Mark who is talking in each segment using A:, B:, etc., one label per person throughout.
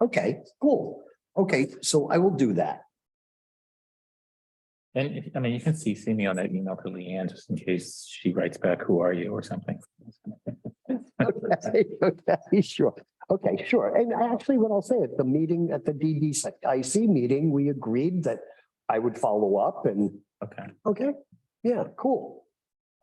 A: Okay, cool. Okay, so I will do that.
B: And if- I mean, you can CC me on that email to Leanne, just in case she writes back, who are you or something.
A: Okay, okay, sure. Okay, sure. And actually, what I'll say at the meeting, at the DDIC meeting, we agreed that I would follow up and,
B: Okay,
A: okay, yeah, cool.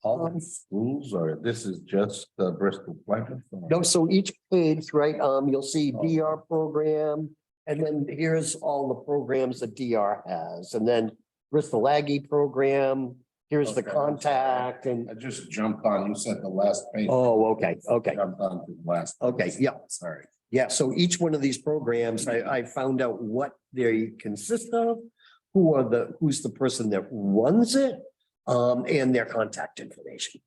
C: All
A: Um,
C: these schools are, this is just uh, Bristol Pleasant?
A: No, so each page, right, um, you'll see
C: Oh.
A: DR program, and then here's all the programs that DR has, and then Bristol Aggie program, here's the
C: Okay.
A: contact and,
C: I just jumped on, you said the last page.
A: oh, okay, okay.
C: Jumped on to the last.
A: Okay, yeah.
C: Sorry.
A: Yeah, so each one of these programs, I, I found out what they consist of, who are the, who's the person that runs it, um, and their contact information.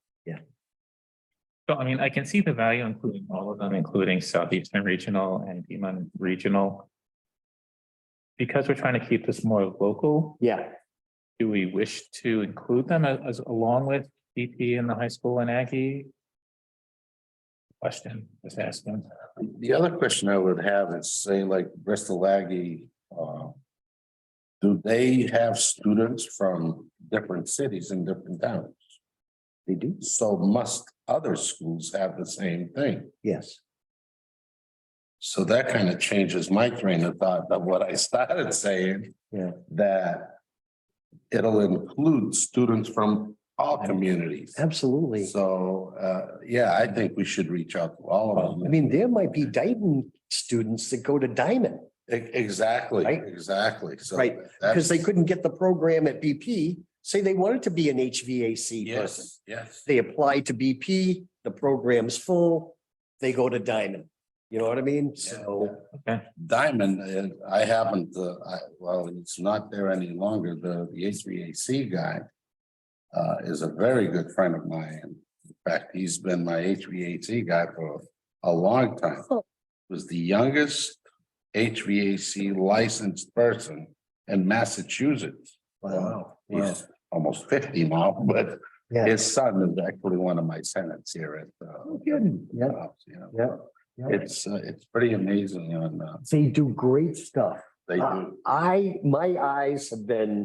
B: so I mean, I can see the value including all of them, including Southeastern Regional and Beaman Regional. Because we're trying to keep this more local,
A: Yeah,
B: do we wish to include them a- as along with DP and the high school and Aggie? Question, just asking.
C: The other question I would have is say like Bristol Aggie, uh. Do they have students from different cities and different towns?
A: they do.
C: So must other schools have the same thing?
A: Yes.
C: So that kind of changes my train of thought of what I started saying.
A: Yeah.
C: That it'll include students from all communities.
A: Absolutely.
C: So, uh, yeah, I think we should reach out to all of
A: I
C: them.
A: mean, there might be Dayton students that go to Diamond
C: E- Exactly,
A: Right.
C: exactly. So
A: Right, because they
C: that's-
A: couldn't get the program at BP. Say they wanted to be an HVAC person.
C: Yes, yes.
A: They apply to BP, the program's full, they go to Diamond. You know what I mean? So,
C: Diamond, uh, I haven't, uh, I, well, it's not there any longer. The, the HVAC guy uh, is a very good friend of mine. In fact, he's been my HVAC guy for a long time. Was the youngest HVAC licensed person in Massachusetts.
A: wow,
C: He's almost fifty now, but
A: yeah.
C: his son is actually one of my tenants here at. uh,
A: kidding. Yeah.
C: You know,
A: Yeah. yeah.
C: it's, uh, it's pretty amazing and, uh,
A: They do great stuff.
C: they
A: Uh,
C: do.
A: I, my eyes have been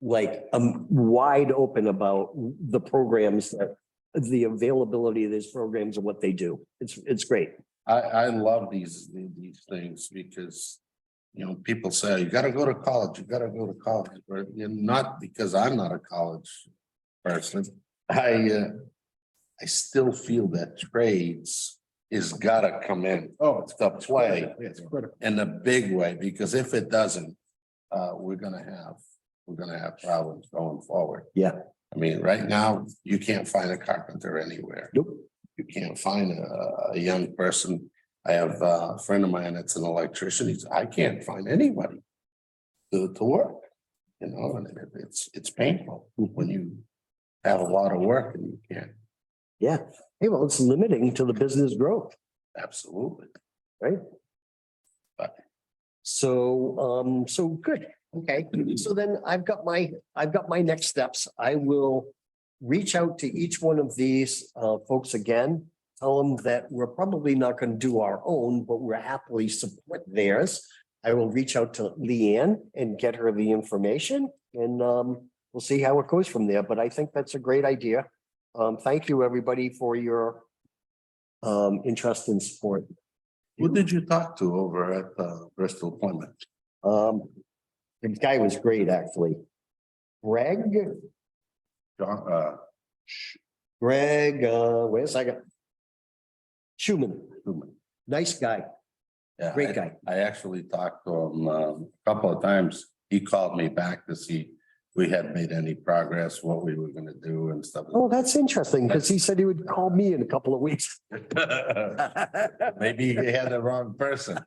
A: like, um, wide open about the programs that the availability of these programs and what they do. It's, it's great.
C: I, I love these, these things because, you know, people say, you gotta go to college, you gotta go to college, but you're not, because I'm not a college person. I, uh, I still feel that trades is gotta come in. Oh, it's the play
A: It's critical.
C: in a big way, because if it doesn't, uh, we're gonna have, we're gonna have problems going forward.
A: Yeah.
C: I mean, right now, you can't find a carpenter anywhere
A: Nope.
C: you can't find a, a young person. I have a friend of mine that's an electrician. He's, I can't find anybody to, to work. You know, and it- it's, it's painful when you have a lot of work and you can't.
A: Yeah. Hey, well, it's limiting to the business growth.
C: Absolutely.
A: So, um, so good. Okay. So then I've got my, I've got my next steps. I will reach out to each one of these, uh, folks again. Tell them that we're probably not going to do our own, but we're happily support theirs. I will reach out to Leanne and get her the information and, um, we'll see how it goes from there. But I think that's a great idea. Um, thank you, everybody, for your, um, interest and support.
C: Who did you talk to over at uh, Bristol Plymouth?
A: Um, the guy was great, actually. Greg,
C: John, uh,
A: Greg, uh, wait a second. Schuman,
C: Schuman.
A: nice guy,
C: Yeah,
A: great
C: I-
A: guy.
C: I actually talked to him um, a couple of times. He called me back to see if we had made any progress, what we were gonna do and stuff.
A: Oh, that's interesting, because he said he would call me in a couple of weeks.
C: Maybe he had the wrong person.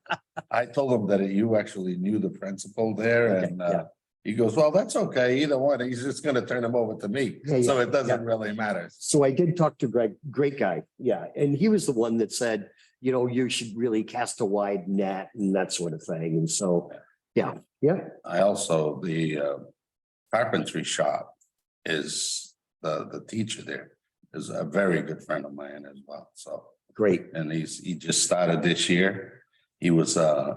C: I told him that you actually knew the principal there
A: Okay,
C: and
A: yeah.
C: uh, he goes, well, that's okay, either one, he's just gonna turn him over to me.
A: Yeah, yeah,
C: So it doesn't really matter.
A: So I did talk to Greg, great guy, yeah, and he was the one that said, you know, you should really cast a wide net and that sort of thing, and so, yeah, yeah.
C: I also, the uh, carpentry shop is, the, the teacher there is a very good friend of mine as well, so.
A: Great.
C: And he's, he just started this year. He was uh